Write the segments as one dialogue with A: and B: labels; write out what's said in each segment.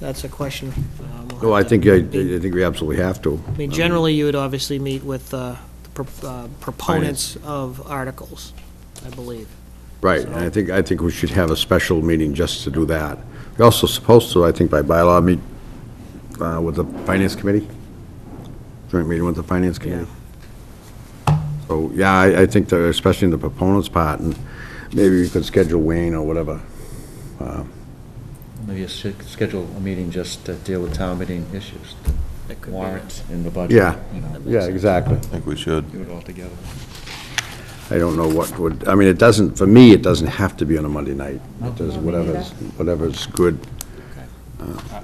A: That's a question. um, we'll
B: No, Oh, I
A: have to
B: think, I I
A: meet.
B: think we absolutely have to.
A: I mean, generally, you would obviously meet with uh, the pro- uh, proponents of articles, I believe.
B: Right, and I think, I think we should have a special meeting just to do that. We're also supposed to, I think by bylaw, meet uh, with the Finance Committee, joint meeting with the Finance Committee. So, yeah, I, I think that, especially in the proponents part, and maybe we could schedule Wayne or whatever.
C: Maybe you should schedule a meeting just to deal with town meeting issues,
A: That could be-
C: warrants and the budget.
B: Yeah,
C: you know,
B: yeah, exactly.
D: I think we should.
C: Do it all together.
B: I don't know what would, I mean, it doesn't, for me, it doesn't have to be on a Monday night. It does whatever's, whatever's good.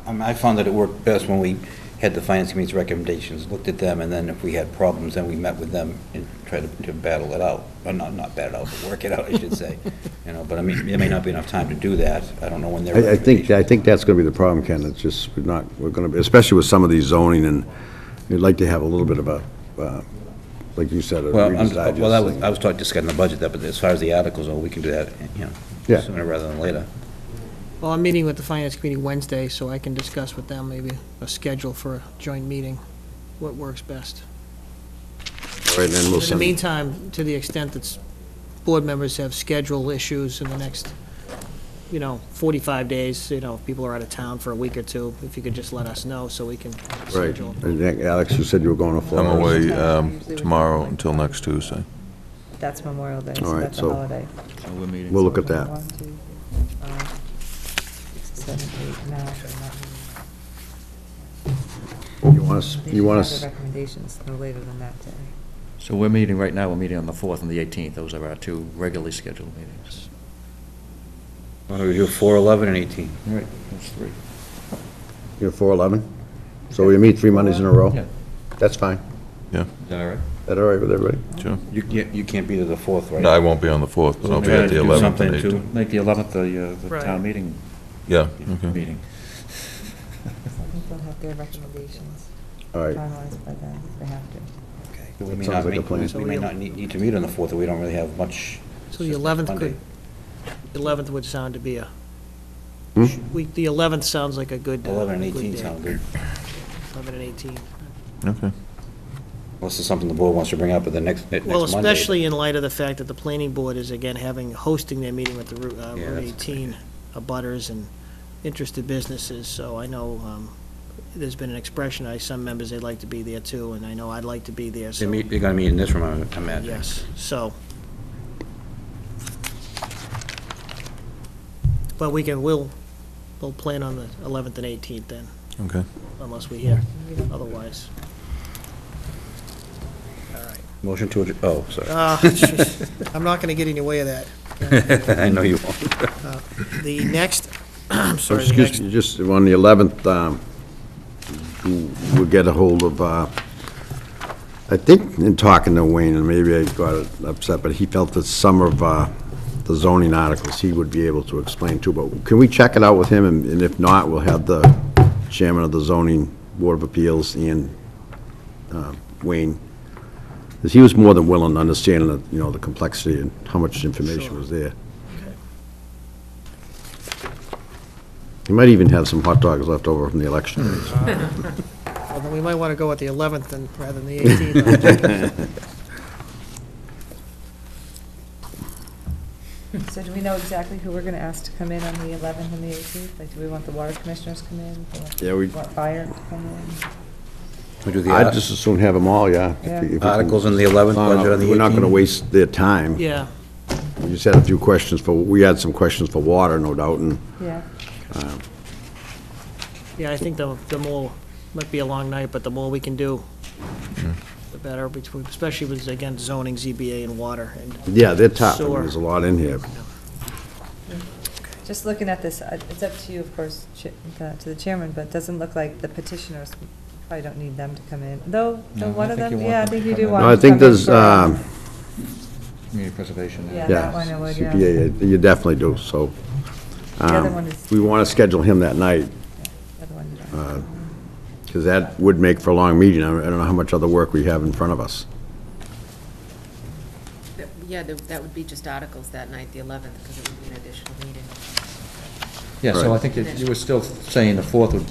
E: I mean, I found that it worked best when we had the finance committee's recommendations, looked at them, and then if we had problems, then we met with them and tried to- to battle it out, or not, not battle it out, but work it out, I should say. You know, but I mean, there may not be enough time to do that. I don't know when their
B: I, I think,
E: recommendations.
B: I think that's gonna be the problem, Ken, it's just, we're not, we're gonna, be especially with some of these zoning, and you'd like to have a little bit of a, uh, like you said, a
E: Well,
B: Reader's
E: I'm- well, I
B: Digest
E: was, I
B: thing.
E: was talking, discussing the budget, that, but as far as the articles, oh, we can do that, you know,
B: Yeah.
E: sooner rather than later.
A: Well, I'm meeting with the Finance Committee Wednesday, so I can discuss with them maybe a schedule for a joint meeting, what works best.
B: All right, then we'll
A: In the
B: send, it.
A: meantime, to the extent that s- board members have schedule issues in the next, you know, 45 days, you know, if people are out of town for a week or two, if you could just let us know so we can
B: right,
A: schedule.
B: And then, Alex, you said you were going to
D: I'm
B: Florida.
D: away um, tomorrow until next Tuesday.
F: That's Memorial Day,
B: All
F: so
B: right,
F: that's a
B: so-
F: holiday.
C: So we're meeting.
B: We'll look at that.
F: One, two, three, four, five, six, seven, eight, nine, eleven.
B: You want us,
F: They
B: you
F: should
B: want
F: have
B: us,
F: the recommendations no later than that day.
C: So we're meeting right now, we're meeting on the 4th and the 18th. Those are our two regularly scheduled meetings.
E: Why don't we do four, eleven, and eighteen?
C: All right, that's three.
B: you're four eleven? So we meet three Mondays in a row?
C: Yeah.
B: That's fine.
D: Yeah,
C: Is that all right?
B: Is that all right with everybody?
D: sure.
E: You can't, you can't be to the fourth, right?
D: No, I won't be on the 4th, but I'll be
C: Try to
D: at the
C: do
D: 11th
E: something
D: and
E: to-
D: 18th.
C: Make the 11th the, uh, the
A: Right.
C: town meeting,
D: Yeah, okay.
C: meeting.
F: I think they'll have their recommendations
B: All right,
F: finalized by then, they have to.
E: Okay. We may
B: Sounds
E: not
B: like a
E: meet-
B: plan.
E: We may not need, need to meet on the fourth, we don't really have much.
A: So the
E: It's just
A: 11th
E: Monday.
A: could, 11th would sound to be a,
B: Hmm?
A: we, the 11th sounds like a good. uh,
E: Eleven and
A: good
E: eighteen
A: day.
E: sound good.
A: 11 and 18.
D: Okay.
E: Unless it's something the board wants to bring up at the next, next Monday.
A: Well, especially in light of the fact that the planning board is again having, hosting their meeting with the Route uh,
E: Yeah,
A: Route
E: that's
A: 18 abutters and interested businesses, so I know um, there's been an expression, I, some members, they'd like to be there too, and I know I'd like to be there,
E: They
A: so,
E: meet, they're gonna meet in this room, I imagine.
A: yes, so. But we can, we'll, we'll plan on the 11th and 18th then,
D: Okay.
A: unless we hear otherwise. All right.
E: Motion to, adj- oh, sorry.
A: Ah, jeez. I'm not going to get in the way of that.
E: I know you won't.
A: The next, I'm
B: So
A: sorry, the
B: excuse
A: next,
B: me, just on the 11th, um, you- we'll get a hold of, uh, I think in talking to Wayne, and maybe I got upset, but he felt that some of uh, the zoning articles he would be able to explain too, but can we check it out with him? And and if not, we'll have the chairman of the zoning board of appeals and uh, Wayne, 'Cause he was more than willing to understand, the, you know, the complexity and how much information
A: Sure.
B: was there. He might even have some hot dogs left over from the election
E: Hmm,
B: days.
A: well, then we might want to go with the 11th then, rather than the 18th.
F: So do we know exactly who we're going to ask to come in on the 11th and the 18th? Like, do we want the water commissioners to come in? Do want-
B: Yeah, we-
F: Want fire to come in?
E: We do the
B: I'd
E: art-
B: just as soon have them all, yeah. If you- if you can-
E: Articles on the 11th,
B: No, no,
E: budget on the
B: We're not going to
E: 18th.
B: waste their time.
A: Yeah,
B: We just had a few questions for, we had some questions for water, no doubt, and
F: Yeah,
A: yeah, I think the, the more, might be a long night, but the more we can do,
B: Hmm.
A: the better, between- especially with, again, zoning, ZBA, and water, and
B: yeah, they're top. I mean,
A: Sure.
B: There's a lot in here.
F: just looking at this, I- it's up to you, of course, chi- the- to the chairman, but it doesn't look like the petitioners, probably don't need them to come in, though,
C: No,
F: though
C: I
F: one of
C: think you
F: them,
C: want
F: yeah, I
C: them to
F: think you
C: come
F: do
C: in.
F: want
B: No,
F: them
B: I
F: to come in.
B: think there's,
F: for-
B: um,
C: Community preservation.
F: Yeah,
B: yeah,
F: that one I would, yeah.
B: CPA, you definitely do, so.
F: The other
B: um,
F: one is-
B: We want to schedule him that night,
F: the other one you don't.
B: because that would make for a long meeting. I I don't know how much other work we have in front of us.
G: That- Yeah, there- that would be just articles that night, the 11th, because it would be an additional meeting.
C: Yeah, so
B: Right.
C: I think that you were still saying the fourth would